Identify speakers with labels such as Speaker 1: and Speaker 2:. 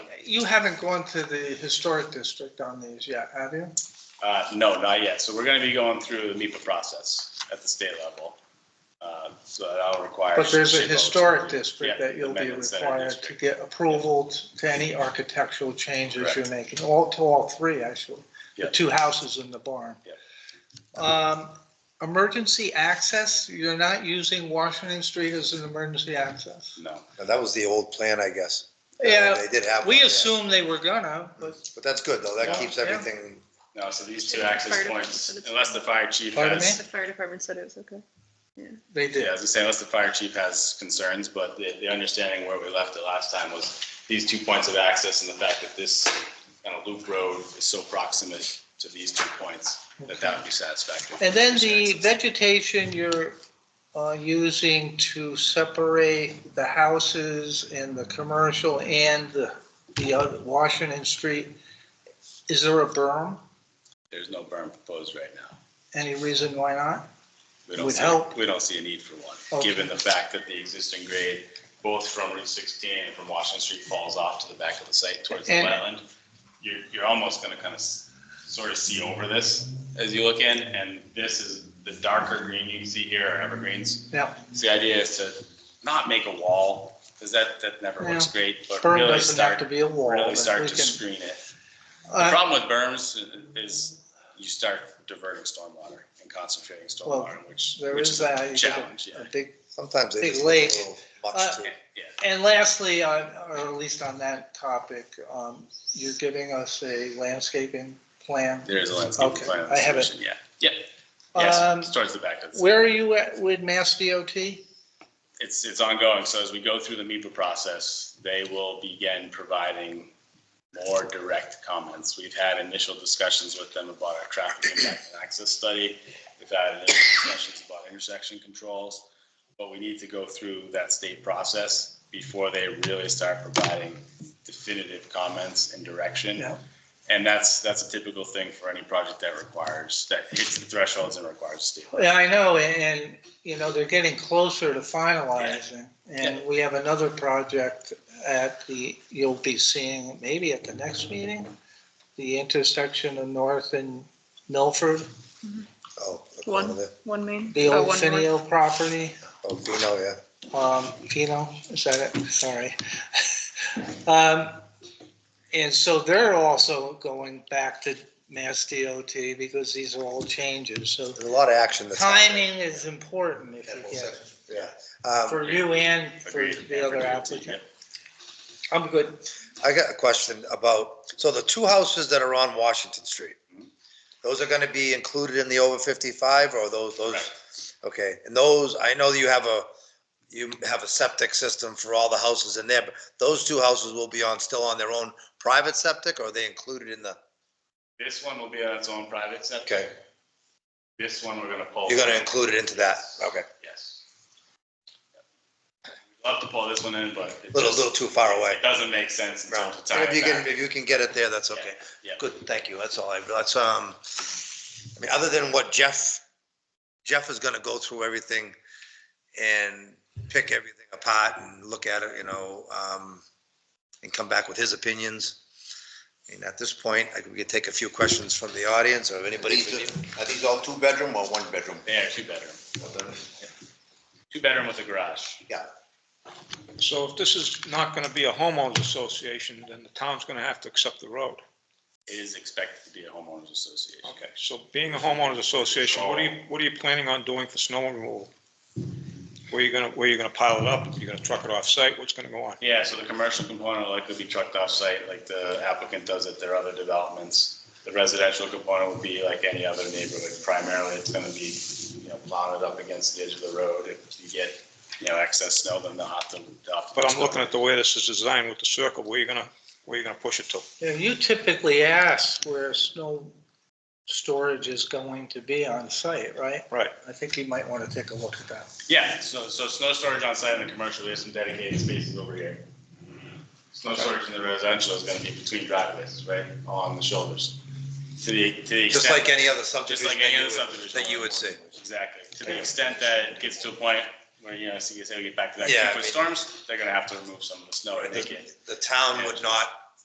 Speaker 1: you haven't gone to the historic district on these yet, have you?
Speaker 2: Uh, no, not yet. So we're gonna be going through the MEPA process at the state level. Uh, So that'll require.
Speaker 1: But there's a
Speaker 2: shape votes.
Speaker 1: historic district
Speaker 2: Yeah,
Speaker 1: that you'll be
Speaker 2: amendments that are
Speaker 1: required to
Speaker 2: district.
Speaker 1: get approval t- to any architectural changes you're
Speaker 2: Correct.
Speaker 1: making, all, to all three, actually. The
Speaker 2: Yeah.
Speaker 1: two houses in the barn.
Speaker 2: Yeah.
Speaker 1: Um, emergency access, you're not using Washington Street as an emergency access?
Speaker 2: No,
Speaker 3: Now, that was the old plan, I guess. Uh,
Speaker 1: Yeah,
Speaker 3: They did have. one,
Speaker 1: we
Speaker 3: yeah.
Speaker 1: assume they were gonna, but
Speaker 3: But that's good, though. That
Speaker 1: Yeah.
Speaker 3: keeps
Speaker 1: Yeah.
Speaker 3: everything,
Speaker 2: no, so these two
Speaker 4: Yeah,
Speaker 2: access
Speaker 4: fire
Speaker 2: points,
Speaker 4: department.
Speaker 2: unless the fire chief
Speaker 1: Pardon
Speaker 2: has.
Speaker 4: The fire department said it was okay.
Speaker 1: they
Speaker 2: Yeah,
Speaker 1: did.
Speaker 2: as I say, unless the fire chief has concerns, but the, the understanding where we left it last time was these two points of access and the fact that this kind of loop road is so proximate to these two points, that that would be satisfactory.
Speaker 1: And then the vegetation you're uh, using to separate the houses and the commercial and the, the other- Washington Street, is there a berm?
Speaker 2: There's no berm proposed right now.
Speaker 1: Any reason why not?
Speaker 2: We don't
Speaker 1: Would
Speaker 2: see,
Speaker 1: help.
Speaker 2: we don't see a need for one,
Speaker 1: Okay.
Speaker 2: given the fact that the existing grade, both from Route 16 and from Washington Street falls off to the back of the site towards the
Speaker 1: And-
Speaker 2: wetland. You're, you're almost gonna kind of sort of see over this as you look in, and this is, the darker green you can see here are evergreens.
Speaker 1: Now,
Speaker 2: So the idea is to not make a wall, because that, that never looks great, but
Speaker 1: berm
Speaker 2: really
Speaker 1: doesn't have
Speaker 2: start,
Speaker 1: to be a wall.
Speaker 2: really
Speaker 1: but
Speaker 2: start
Speaker 1: we
Speaker 2: to
Speaker 1: can-
Speaker 2: screen it. The
Speaker 1: Uh,
Speaker 2: problem with berms is you start diverting stormwater and concentrating
Speaker 1: Well,
Speaker 2: stormwater, which,
Speaker 1: There
Speaker 2: which
Speaker 1: is
Speaker 2: is a
Speaker 1: that. you get a-
Speaker 2: challenge, yeah.
Speaker 1: a big-
Speaker 3: sometimes they
Speaker 1: Big
Speaker 3: just.
Speaker 1: lake.
Speaker 3: do a little
Speaker 1: Uh,
Speaker 3: Much too.
Speaker 2: Yeah,
Speaker 1: And lastly, on- or at least on that topic, um, you're giving us a landscaping plan.
Speaker 2: there is a landscape
Speaker 1: Okay,
Speaker 2: plan.
Speaker 1: I have it.
Speaker 2: solution, Yeah, yeah, yes,
Speaker 1: Um,
Speaker 2: it's towards the back of the.
Speaker 1: Where are you at with Mass DOT?
Speaker 2: It's, it's ongoing, so as we go through the MEPA process, they will begin providing more direct comments. We've had initial discussions with them about our traffic impact and access study. We've had initial discussions about intersection controls, but we need to go through that state process before they really start providing definitive comments and direction.
Speaker 1: Yeah.
Speaker 2: And that's, that's a typical thing for any project that requires, that hits the thresholds and requires state.
Speaker 1: Yeah, I know, and, and, you know, they're getting closer to finalizing. And we have another project at the, you'll be seeing maybe at the next meeting, the intersection of North and Milford,
Speaker 3: Oh, look,
Speaker 4: One.
Speaker 3: over there.
Speaker 4: One main.
Speaker 1: the
Speaker 4: uh,
Speaker 1: old
Speaker 4: one north.
Speaker 1: Finio property.
Speaker 3: Oh, you know, yeah.
Speaker 1: Um, Pino, is that it? Sorry. Um, and so they're also going back to Mass DOT because these are all changes, so
Speaker 3: There's a lot of action that's. happening.
Speaker 1: timing is important if you get it.
Speaker 3: Yeah. Um,
Speaker 1: For you and for
Speaker 2: Agreed.
Speaker 1: the other applicant. I'm good.
Speaker 3: I got a question about, so the two houses that are on Washington Street, those are gonna be included in the over fifty-five or those, those?
Speaker 2: Correct.
Speaker 3: Okay, and those, I know that you have a, you have a septic system for all the houses in there, but those two houses will be on, still on their own private septic or are they included in the?
Speaker 2: This one will be on its own private septic.
Speaker 3: Okay,
Speaker 2: This one we're gonna pull.
Speaker 3: you're gonna include it into that, okay.
Speaker 2: Yes. We'd Love to pull this one in, but it
Speaker 3: Little, little
Speaker 2: just,
Speaker 3: too far away.
Speaker 2: it doesn't make sense in terms of time.
Speaker 3: If you can,
Speaker 2: factor.
Speaker 3: if you can get it there, that's
Speaker 2: Yeah,
Speaker 3: okay.
Speaker 2: yeah.
Speaker 3: Good, thank you, that's all I, that's, um, I mean, other than what Jeff, Jeff is gonna go through everything and pick everything apart and look at it, you know, um, and come back with his opinions. And at this point, I could, we could take a few questions from the audience or if anybody.
Speaker 5: Are these all two-bedroom or one-bedroom?
Speaker 2: They are two bedroom, two bedroom with a garage.
Speaker 6: So if this is not gonna be a homeowners association, then the town's gonna have to accept the road.
Speaker 2: It is expected to be a homeowners association.
Speaker 6: Okay, so being a homeowners association, what are you, what are you planning on doing for snow removal? Where you gonna, where you gonna pile it up? You gonna truck it off-site? What's gonna go on?
Speaker 2: Yeah, so the commercial component will likely be trucked off-site like the applicant does at their other developments. The residential component would be like any other neighborhood. Primarily, it's gonna be, you know, mounted up against the edge of the road. If you get, you know, excess snow, then they'll have to. they'll have to-
Speaker 6: But I'm looking at the way this is designed with the circle, where you gonna, where you gonna push it to?
Speaker 1: Yeah, You typically ask where snow storage is going to be on site, right?
Speaker 6: Right.
Speaker 1: I think you might want to take a look at that.
Speaker 2: Yeah, so, so snow storage on site and the commercial, we have some dedicated spaces over here. Snow storage in the residential is gonna be between driveways, right, along the shoulders. To the, to the
Speaker 3: Just
Speaker 2: extent.
Speaker 3: like any other
Speaker 2: Just
Speaker 3: subdivision.
Speaker 2: like any
Speaker 3: that you
Speaker 2: other
Speaker 3: would-
Speaker 2: subdivision.
Speaker 3: That you would see.
Speaker 2: Exactly. To the extent that it gets to a point where, you know, so you say we get back to that,
Speaker 3: Yeah, I
Speaker 2: with
Speaker 3: mean-
Speaker 2: storms, they're gonna have to remove some of the snow to make
Speaker 3: The
Speaker 2: it.
Speaker 3: the town would not